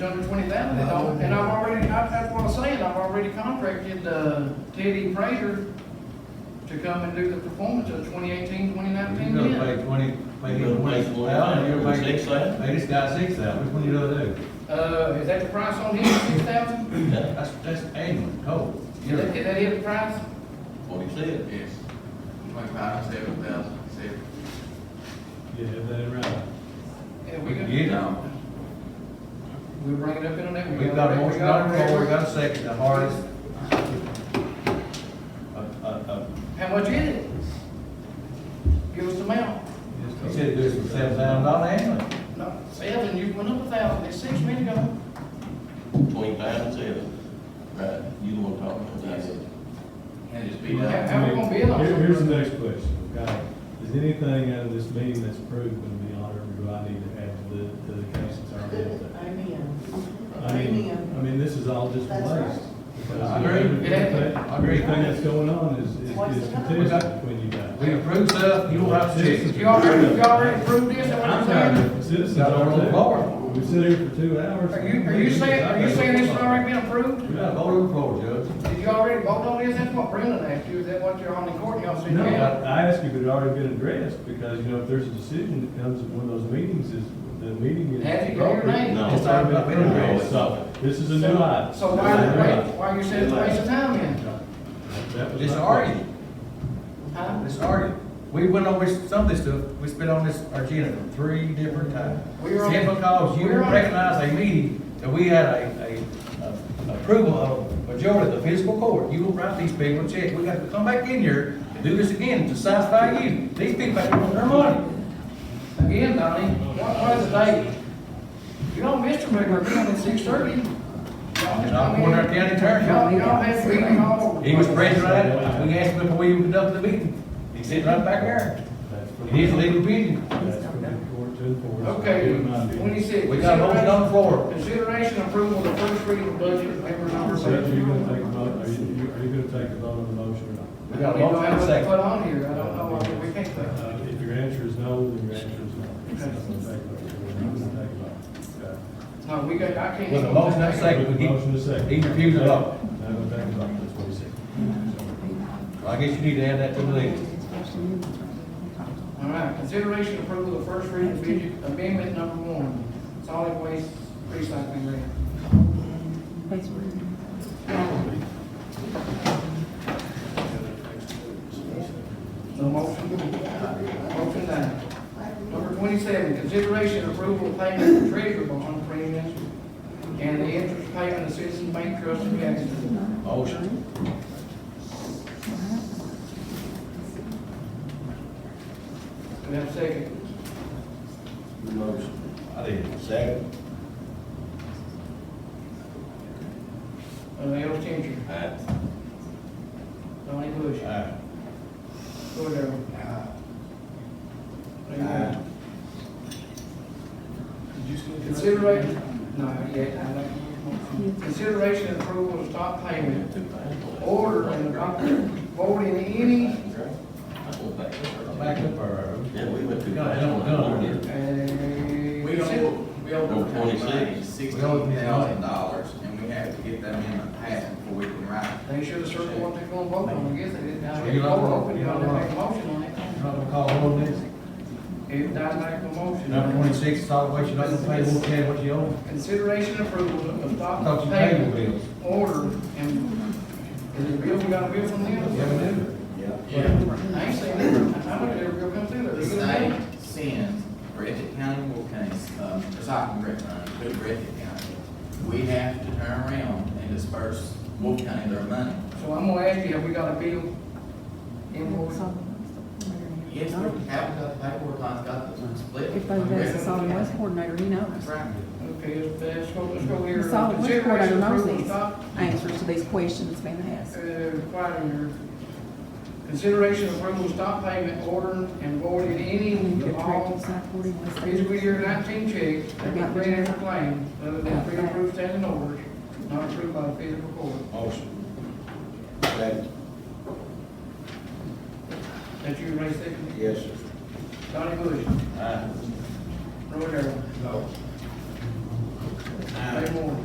Under twenty thousand, they don't, and I've already, I- that's what I'm saying, I've already contracted, uh, Teddy Frazier to come and do the performance of 2018, 2019 You're gonna bid. pay twenty, pay You're him gonna pay twenty thousand, you're gonna pay, six thousand? pay this guy six thousand, which one you gonna do? Uh, is that the price on him, six thousand? Yeah, That's, that's annual, total. Is that, is that it, the price? what he said. Yes, twenty-five to seven thousand, seven. Yeah, that right. Yeah, we can, You know, we bring it up in the next. we've got a motion on the floor, we've got a second, the hardest. Uh, uh, uh, How much is it? Give us the amount. he said do it for seven thousand dollar annually. No, seven, you went up a thousand, it's six minutes ago. Twenty-five and seven. Right, you the one talking about that. And just be How, done. how we gonna bid on Here- Here's the something? next question, okay? Is anything out of this meeting that's approved going to be on, or do I need to add to the, to the cases already? out there? Amen. I mean, I mean, this is all just That's right. waste. because I agree. everything- I agree. Everything that's going on is, is Waste is of time. contested between you guys. We approve stuff, you don't have to check. You already, you already approved this, is that what I'm I'm tired saying? of it. citizens Got on the are floor. We sit here for two hours. Are you, are you saying, are you saying this has already been approved? We got a vote on the floor, Judge. Did you already vote on this? That's what Brendan asked you, is that what you're on the court, y'all said, No, yeah? I I asked you if it had already been addressed, because, you know, if there's a decision that comes at one of those meetings, is, the meeting is. Have you got your name? No. It's already been No. addressed, so this is a new item. So why, why, why you said it's a waste of time then? That was It's my- already, Huh? it's already. We went over some of this stuff, we spent on this agenda three different times. We were on- Simply because you we were on- recognized a meeting that we had a, a, a approval of majority of the fiscal court. You will write these people a check, we got to come back in here and do this again to satisfy you. These people have to want their money. Again, Donnie, what was the date? You don't miss your regular meeting at six thirty. And I'm going to our county attorney. Y'all, y'all had a meeting all. He was present right at, we asked him before we even conducted the meeting. He said right back there. That's for- It is a legal opinion. That's for the court to enforce. Okay, In my opinion. twenty-six. We got a motion on the floor. Consideration approval of the first reading of budget, paper number So are you gonna take a seven. vote, are you, you- are you gonna take a vote on the motion or not? We got a motion and a I don't even know what to Put on here, I don't know, second. I mean, we can't put. Uh, If your answer is no, then your answer is no. It's not gonna take a vote. We're not gonna take a vote. Okay. No, we got, I can't. With a motion and a second. With a motion to second. He refused to vote. No, we're taking a vote, that's what he said. I guess you need to add that to the list. All right, consideration approval of first reading of budget amendment number one, solid waste recycling grant. So motion, motion down. Number twenty-seven, consideration approval of payment of treasurer bond premiums and the interest payment of Citizen Bank Trust of Jacksonville. Motion. Do we have a second? Motion. I did. Second. Uh, Al Changer, Aye. Donnie Bush, Aye. Roy Darrell. Lee Rivers. Consideration, no, yeah, I know. Consideration and approval of stop payment order and not voting any, uh, Back up our. Yeah, we went too. No, I don't know. uh. We don't, we Number owe the county 26. sixteen thousand dollars, and we have to get that amendment passed before we can write. They should have circled what they're gonna vote on, I guess they didn't, now So they you're vote not wrong. open, you know, they make a motion on it. You're Not gonna call hold this. It died like a motion. Number twenty-six, solid waste, you're not gonna pay one ten, what you owe. Consideration and approval of I stop thought you paid your payment bills. order and, is it real, we got a bill from them? You haven't done it. Yeah. I ain't seen it, I looked at it, real come through there. The state sends Breathitt County, Will County, um, recycling grant money to Breathitt County. We have to turn around and disperse Will County their money. So I'm gonna ask you, have we got a bill invoice? Yes, we have got the paperwork, I've got the split. If they ask the solid waste coordinator, he knows. That's right. Okay, let's, let's go, let's go here. The solid waste coordinator Consideration knows approval these stop, answers to these questions being asked. uh, requiring your consideration approval of stop payment order and voiding any And of you're correct, all it's not forty-one. fiscal year nineteen checks that were created for claims other than pre-approved standing orders, not approved by the fiscal court. Motion. Second. That you raise second, Yes, sir. Donnie Bush, Aye. Roy Darrell. Ray Moore.